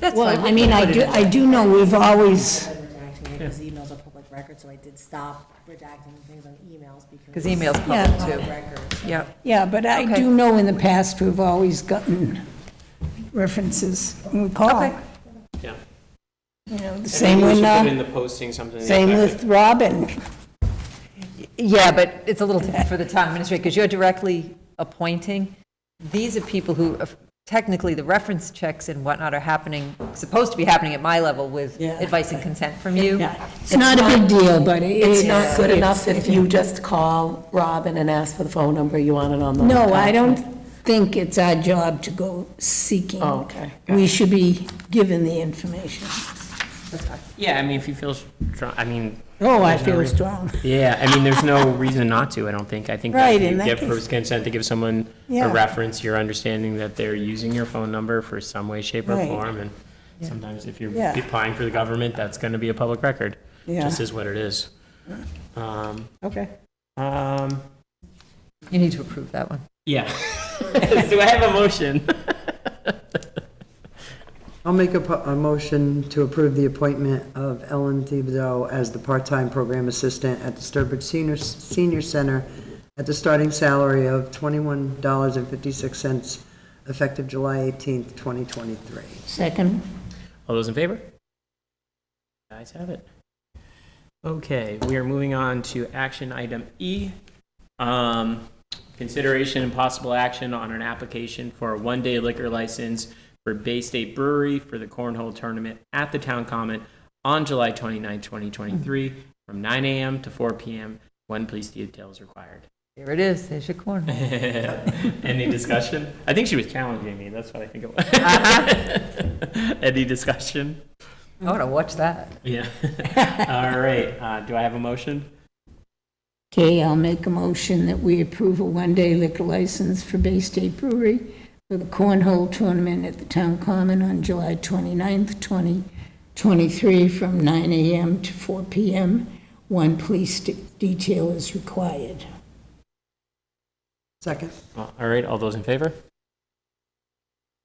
That's Well, fine. I mean, I do, I do know we've always, started redacting it, because emails are public record, so I did stop redacting things on emails Because because. email's Yeah. public too. Records. Yep. yeah, but I Okay. do know in the past, we've always gotten references when we call. Okay. Yeah. You know, the I think same we should with, Put uh, in the posting something. to the same effect with Robin. Yeah, but it's a little different for the town administrator, because you're directly appointing. These are people who, uh, technically, the reference checks and whatnot are happening, supposed to be happening at my level with Yeah. advice and consent from you. It's not a big deal, but it It's is- not good it's- enough if you just call Robin and ask for the phone number, you want it on the. No, I laptop. don't think it's our job to go seeking. Oh, okay. We should be given the information. Yeah, I mean, if you feel strong, I mean, Oh, I There's no feel reason. strong. yeah, I mean, there's no reason not to, I don't think. I think that Right, if in you that give case- first consent to give someone Yeah. a reference, you're understanding that they're using your phone number for some way, shape, or Right. form. And sometimes if you're Yeah. applying for the government, that's going to be a public record. Yeah. Just is what it is. Um, Okay. um, You need to approve that one. yeah. Do I have a motion? I'll make a, po- a motion to approve the appointment of Ellen Thibodeau as the part-time program assistant at the Sturbridge Senior, Senior Center at the starting salary of twenty-one dollars and fifty-six cents, effective July eighteenth, twenty twenty-three. Second? All those in favor? Guys have it. Okay, we are moving on to action item E. Um, Consideration and possible action on an application for a one-day liquor license for Bay State Brewery for the cornhole tournament at the Town Common on July 29, 2023, from 9 a.m. to 4 p.m. One police detail is required. There it is, there's your corn. Any discussion? I think she was challenging me, that's what I think it was. Any discussion? I want to watch that. Yeah. All right. Uh, do I have a motion? Okay, I'll make a motion that we approve a one-day liquor license for Bay State Brewery for the cornhole tournament at the Town Common on July 29th, 2023, from 9 a.m. to 4 p.m. One police de- detail is required. Second? All right. All those in favor?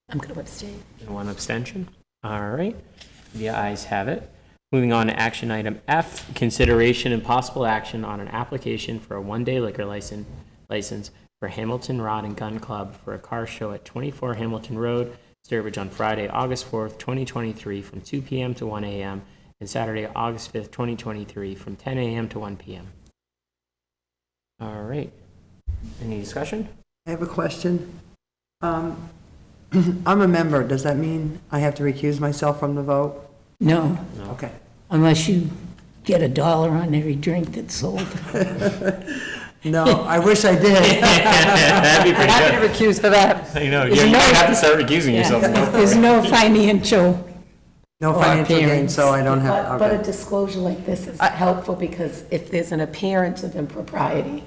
I'm going to abstain. And one abstention. All right. The ayes have it. Moving on to action item F, consideration and possible action on an application for a one-day liquor license, license for Hamilton Rod and Gun Club for a car show at 24 Hamilton Road, Sturbridge on Friday, August 4th, 2023, from 2 p.m. to 1 a.m., and Saturday, August 5th, 2023, from 10 a.m. to 1 p.m. All right. Any discussion? I have a question. Um, I'm a member, does that mean I have to recuse myself from the vote? No, Okay. unless you get a dollar on every drink that's sold. No, I wish I did. That'd be I'm happy to recuse for that. You know, There's you you no- have to start recusing yourself. There's no financial, No Or financial gain, appearance. so Oh, I don't have, But a okay. disclosure like this is helpful because if there's an appearance of impropriety,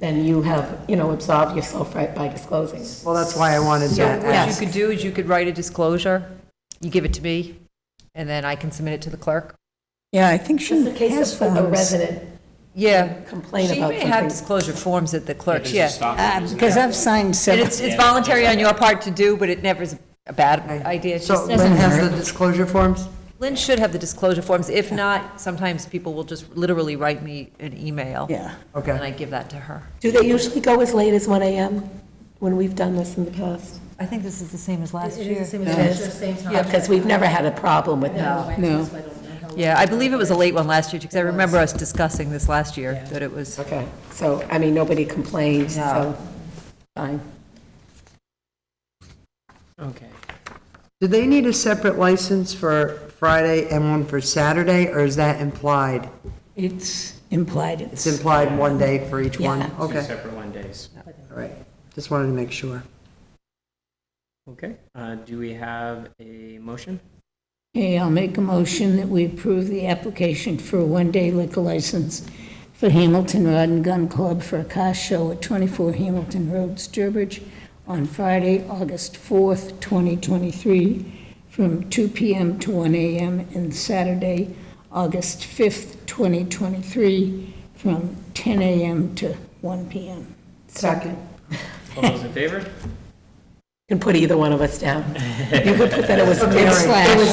then you have, you know, absolved yourself right by disclosing. Well, that's why I wanted to So what you ask. could do is you could write a disclosure, you give it to me, and then I can submit it to the clerk. yeah, I think Just she in case has of um, a those. resident Yeah. complain about She may have something. disclosure forms at the clerk's, yeah. Um, Uh, Because I've signed And several. it's, it's voluntary on your part to do, but it never is a bad idea. It's So just- Lynn has the disclosure forms? Lynn should have the disclosure forms. If not, sometimes people will just literally write me an email. Yeah. Okay. And I give that to her. Do they usually go as late as 1 AM when we've done this in the past? I think this is the same as last It year. is the same time. Yeah, because we've never had a problem with that. No. Yeah, I believe it was a late one last year, because I remember us discussing this last year, that it was. Okay, so, I mean, nobody complained, so, No. fine. Okay. Do they need a separate license for Friday and one for Saturday, or is that implied? It's implied it's. It's implied one day for each one? Yeah. Two Okay, separate one days. all right. Just wanted to make sure. Okay. Uh, do we have a motion? Okay, I'll make a motion that we approve the application for a one-day liquor license for Hamilton Rod and Gun Club for a car show at 24 Hamilton Road, Sturbridge, on Friday, August 4th, 2023, from 2 PM to 1 AM, and Saturday, August 5th, 2023, from 10 AM to 1 PM. Second. All those in favor? You can put either one of us down. You could put that it was Slash.